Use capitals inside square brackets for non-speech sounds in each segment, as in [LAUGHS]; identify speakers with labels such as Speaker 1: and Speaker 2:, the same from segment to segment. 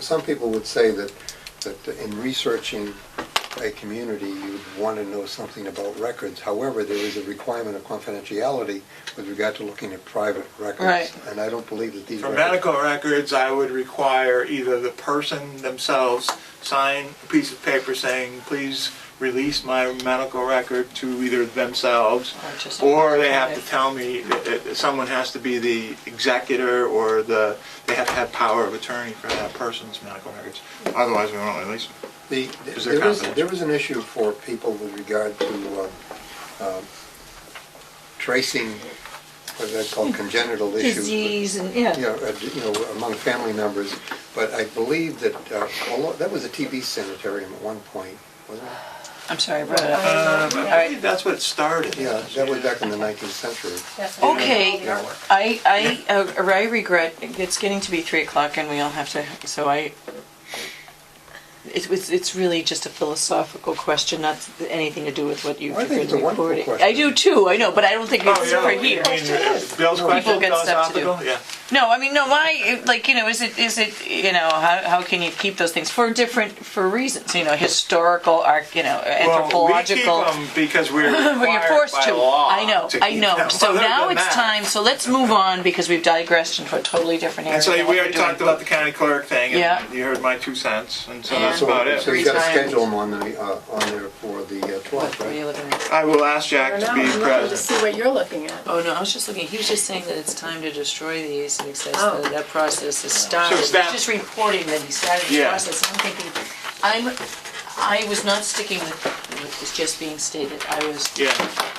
Speaker 1: Some people would say that, that in researching a community, you'd want to know something about records. However, there is a requirement of confidentiality with regard to looking at private records.
Speaker 2: Right.
Speaker 1: And I don't believe that these
Speaker 3: For
Speaker 1: records...
Speaker 3: medical records, I would require either the person themselves sign a piece of paper saying, please release my medical record to either themselves,
Speaker 2: Or just-
Speaker 3: or they have to tell me, uh, uh, someone has to be the executor, or the, they have to have power of attorney for that person's medical records. Otherwise, we won't release them.
Speaker 1: The,
Speaker 3: Is there
Speaker 1: there is,
Speaker 3: confidential?
Speaker 1: there is an issue for people with regard to uh, um, tracing, what that's called congenital issues. but-
Speaker 2: Hmm. Disease and, yeah.
Speaker 1: Yeah, uh, you know, among family members, but I believe that, uh, although, that was a TB sanitarium at one point, wasn't it?
Speaker 2: I'm sorry, I brought it up.
Speaker 3: Um,
Speaker 2: All
Speaker 3: I
Speaker 2: right.
Speaker 3: believe that's what it started.
Speaker 1: Yeah, that was back in the 19th century.
Speaker 2: Okay,
Speaker 1: Yeah.
Speaker 2: I, I, uh, I regret, it's getting to be three o'clock and we all have to, so I, it was, it's really just a philosophical question, not anything to do with what you've
Speaker 1: I think it's a
Speaker 2: been
Speaker 1: wonderful
Speaker 2: recording.
Speaker 1: question.
Speaker 2: I do too, I know, but I don't think
Speaker 3: Oh,
Speaker 2: it's
Speaker 3: yeah.
Speaker 2: for
Speaker 3: I mean,
Speaker 2: here.
Speaker 3: uh, Bill's question,
Speaker 2: get stuff to do.
Speaker 3: philosophical, yeah.
Speaker 2: No, I mean, no, my, like, you know, is it, is it, you know, how, how can you keep those things for different, for reasons, you know, historical, arc, you know, anthropological.
Speaker 3: Well, we keep them because
Speaker 2: [LAUGHS]
Speaker 3: we're
Speaker 2: Well, you're
Speaker 3: required
Speaker 2: forced
Speaker 3: by
Speaker 2: to.
Speaker 3: law.
Speaker 2: I know,
Speaker 3: to
Speaker 2: I
Speaker 3: keep
Speaker 2: know.
Speaker 3: them.
Speaker 2: So
Speaker 3: Other
Speaker 2: now
Speaker 3: than
Speaker 2: it's
Speaker 3: that-
Speaker 2: time, so let's move on because we've digressed into a totally different area.
Speaker 3: And so
Speaker 2: than
Speaker 3: we
Speaker 2: what
Speaker 3: already
Speaker 2: we're doing.
Speaker 3: talked about the county clerk thing,
Speaker 2: Yeah.
Speaker 3: and you heard my two cents, and so
Speaker 2: Yeah.
Speaker 3: that's
Speaker 1: So-
Speaker 3: about
Speaker 1: So
Speaker 3: it.
Speaker 1: you got to
Speaker 2: Three times.
Speaker 1: schedule them on the, uh, on there for the uh, 12th,
Speaker 2: What were you
Speaker 1: right?
Speaker 2: looking at?
Speaker 3: I will ask
Speaker 4: I
Speaker 3: Jack
Speaker 4: don't know,
Speaker 3: to
Speaker 4: I'm
Speaker 3: be
Speaker 4: looking to
Speaker 3: present.
Speaker 4: see what you're looking at.
Speaker 2: Oh, no, I was just looking, he was just saying that it's time to destroy these and he says
Speaker 4: Oh.
Speaker 2: that that process is started.
Speaker 3: So
Speaker 2: He's
Speaker 3: is that-
Speaker 2: just reporting that he started the
Speaker 3: Yeah.
Speaker 2: process. I'm thinking, I'm, I was not sticking with what was just being stated. I was
Speaker 3: Yeah,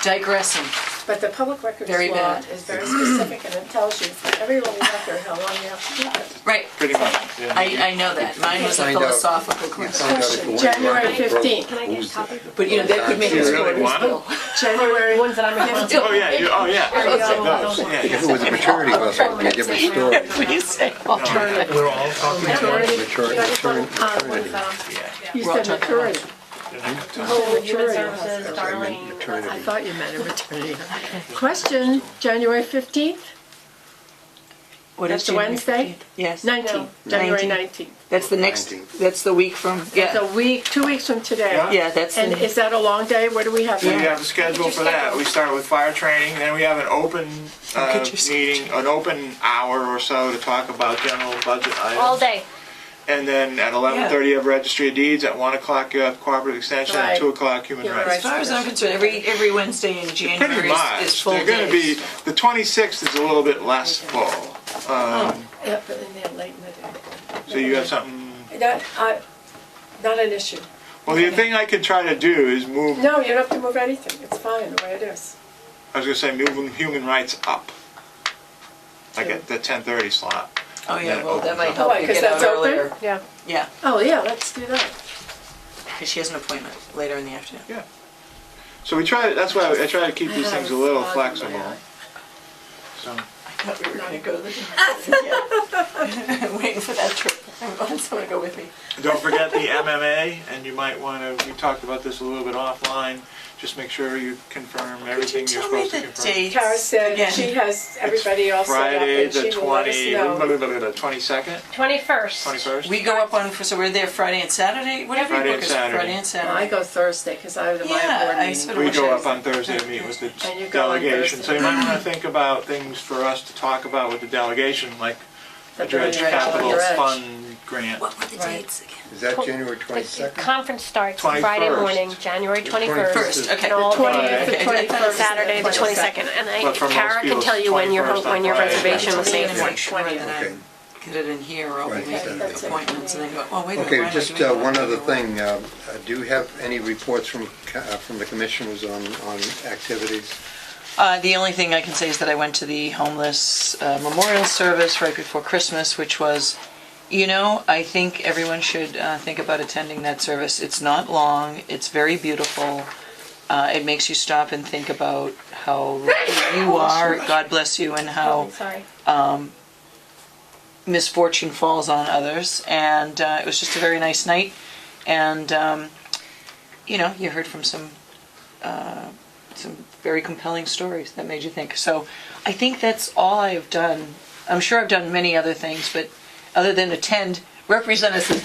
Speaker 2: digressing.
Speaker 4: But the public records
Speaker 2: Very
Speaker 4: law
Speaker 2: bad.
Speaker 4: is very specific and it tells you for every little record how long you have to keep it.
Speaker 2: Right,
Speaker 3: pretty much. yeah.
Speaker 2: I, I know that. Mine was a
Speaker 1: Find out.
Speaker 2: philosophical
Speaker 1: You
Speaker 2: question.
Speaker 1: find out if you
Speaker 4: Question,
Speaker 1: want to
Speaker 4: January
Speaker 1: rock and roll.
Speaker 4: 15th.
Speaker 5: Can I get a copy?
Speaker 2: But, you know, that could make
Speaker 3: You
Speaker 2: it
Speaker 3: really want them?
Speaker 4: January,
Speaker 5: Ones that I'm against.
Speaker 3: Oh, yeah, you- oh, yeah.
Speaker 5: There you go.
Speaker 3: Those, yeah, yeah.
Speaker 1: If it was a maturity vessel, we could give a story.
Speaker 2: Please say alternative.
Speaker 6: We're all talking about
Speaker 4: maturity,
Speaker 1: Maturity,
Speaker 2: Uh,
Speaker 1: maternity,
Speaker 4: you
Speaker 2: We're all
Speaker 4: said
Speaker 2: talking about-
Speaker 4: maturity. Oh,
Speaker 5: Human
Speaker 4: maturity.
Speaker 5: services, Darlene.
Speaker 4: I
Speaker 1: maternity.
Speaker 4: thought you meant a maternity. Question, January 15th,
Speaker 2: What
Speaker 4: That's
Speaker 2: is
Speaker 4: the
Speaker 2: January
Speaker 4: Wednesday?
Speaker 2: 15th? Yes.
Speaker 4: 19th, January 19th.
Speaker 2: That's the next,
Speaker 1: 19th.
Speaker 2: that's the week from,
Speaker 4: It's a
Speaker 2: yeah,
Speaker 4: week, two weeks from today.
Speaker 2: yeah, that's
Speaker 4: And
Speaker 2: the,
Speaker 4: is that a long day? What do we have?
Speaker 3: We have a schedule for that. We start with fire training, then we have an open
Speaker 2: Look
Speaker 3: uh,
Speaker 2: at your
Speaker 3: meeting, an open hour or so to talk about general budget items.
Speaker 5: All day.
Speaker 3: And then at 11:30, you have registry of deeds. At 1 o'clock, you have cooperative extension. At
Speaker 4: Right.
Speaker 3: 2 o'clock, human
Speaker 4: Human
Speaker 3: rights.
Speaker 4: rights.
Speaker 2: as far as I'm concerned, every, every Wednesday in
Speaker 3: Pretty
Speaker 2: January
Speaker 3: much.
Speaker 2: is- is full
Speaker 3: They're going to be,
Speaker 2: days.
Speaker 3: the 26th is a little bit less full. Um,
Speaker 4: Yeah, but in there late in the day.
Speaker 3: So you have something,
Speaker 4: That, I, not an issue.
Speaker 3: well, the thing I could try to do is move, I
Speaker 4: No, you don't have to move anything, it's fine the way it is.
Speaker 3: was going to say, move human rights up. Like at the 10:30 slot.
Speaker 2: Oh, yeah, well, that might
Speaker 3: Oh,
Speaker 2: help you
Speaker 4: Because
Speaker 2: get out
Speaker 4: that's
Speaker 2: earlier.
Speaker 4: open? Yeah.
Speaker 2: Yeah,
Speaker 4: Oh, yeah, let's do that.
Speaker 2: because she has an appointment later in the afternoon.
Speaker 3: Yeah. So we try, that's why I try to keep these things a little flexible. So
Speaker 2: I thought we were going to go to the. I'm [LAUGHS] waiting for that trip. [LAUGHS] I want someone to go with me.
Speaker 3: Don't forget the MMA, and you might want to, we talked about this a little bit offline. Just make sure you confirm everything you're
Speaker 2: Tell me
Speaker 3: supposed to
Speaker 2: the
Speaker 3: confirm.
Speaker 2: dates.
Speaker 4: Tara said
Speaker 2: again.
Speaker 4: she has everybody all set up
Speaker 3: Friday,
Speaker 4: and
Speaker 3: the
Speaker 4: she will let us
Speaker 3: 20,
Speaker 4: know.
Speaker 3: the 22nd,
Speaker 5: 21st.
Speaker 3: 21st?
Speaker 2: We go up on, so we're there Friday and Saturday? What did we
Speaker 3: Friday
Speaker 2: book
Speaker 3: and
Speaker 2: as
Speaker 3: Saturday.
Speaker 2: Friday and Saturday?
Speaker 4: I go Thursday because I have the
Speaker 2: Yeah,
Speaker 4: Maya board
Speaker 2: I
Speaker 4: meeting.
Speaker 2: sort of
Speaker 3: We
Speaker 2: wish
Speaker 3: go
Speaker 2: I
Speaker 3: up on Thursday and meet with the
Speaker 4: And you go on
Speaker 3: delegation, so you
Speaker 4: Thursday.
Speaker 3: might wanna think about things for us to talk about with the delegation, like the
Speaker 4: The
Speaker 3: Dredge
Speaker 4: dredge,
Speaker 3: Capital
Speaker 4: dredge.
Speaker 3: Fund grant.
Speaker 2: What were the
Speaker 4: Right.
Speaker 2: dates again?
Speaker 1: Is that January 22nd?
Speaker 5: Conference starts Friday
Speaker 3: 21st.
Speaker 5: morning, January 21st.
Speaker 2: First, okay.
Speaker 5: And all
Speaker 4: Twentieth,
Speaker 5: day,
Speaker 4: the
Speaker 2: Okay.
Speaker 4: twenty-first.
Speaker 5: Saturday, the 22nd. And I,
Speaker 3: But for most
Speaker 5: Kara can
Speaker 3: people,
Speaker 5: tell you when your, ho-
Speaker 3: 21st on
Speaker 5: when your
Speaker 3: Friday.
Speaker 5: reservation was
Speaker 2: Twenty
Speaker 5: made
Speaker 2: and
Speaker 5: for.
Speaker 2: make sure that I
Speaker 1: Okay.
Speaker 2: get it in here or I'll be
Speaker 1: Right,
Speaker 2: making
Speaker 1: that's it.
Speaker 2: appointments and then go, oh, wait a minute. why
Speaker 1: Okay,
Speaker 2: am I
Speaker 1: just
Speaker 2: doing
Speaker 1: uh,
Speaker 2: that?
Speaker 1: one other thing. um, uh, Do you have any reports from, ca- uh, from the commissioners on, on activities?
Speaker 2: Uh, the only thing I can say is that I went to the homeless uh, memorial service right before Christmas, which was, you know, I think everyone should uh, think about attending that service. It's not long, it's very beautiful. Uh, it makes you stop and think about how lucky you are, God bless you, and how
Speaker 5: Sorry.
Speaker 2: misfortune falls on others. And uh, it was just a very nice night. And um, you know, you heard from some uh, some very compelling stories that made you think. So I think that's all I have done. I'm sure I've done many other things, but other than attend representatives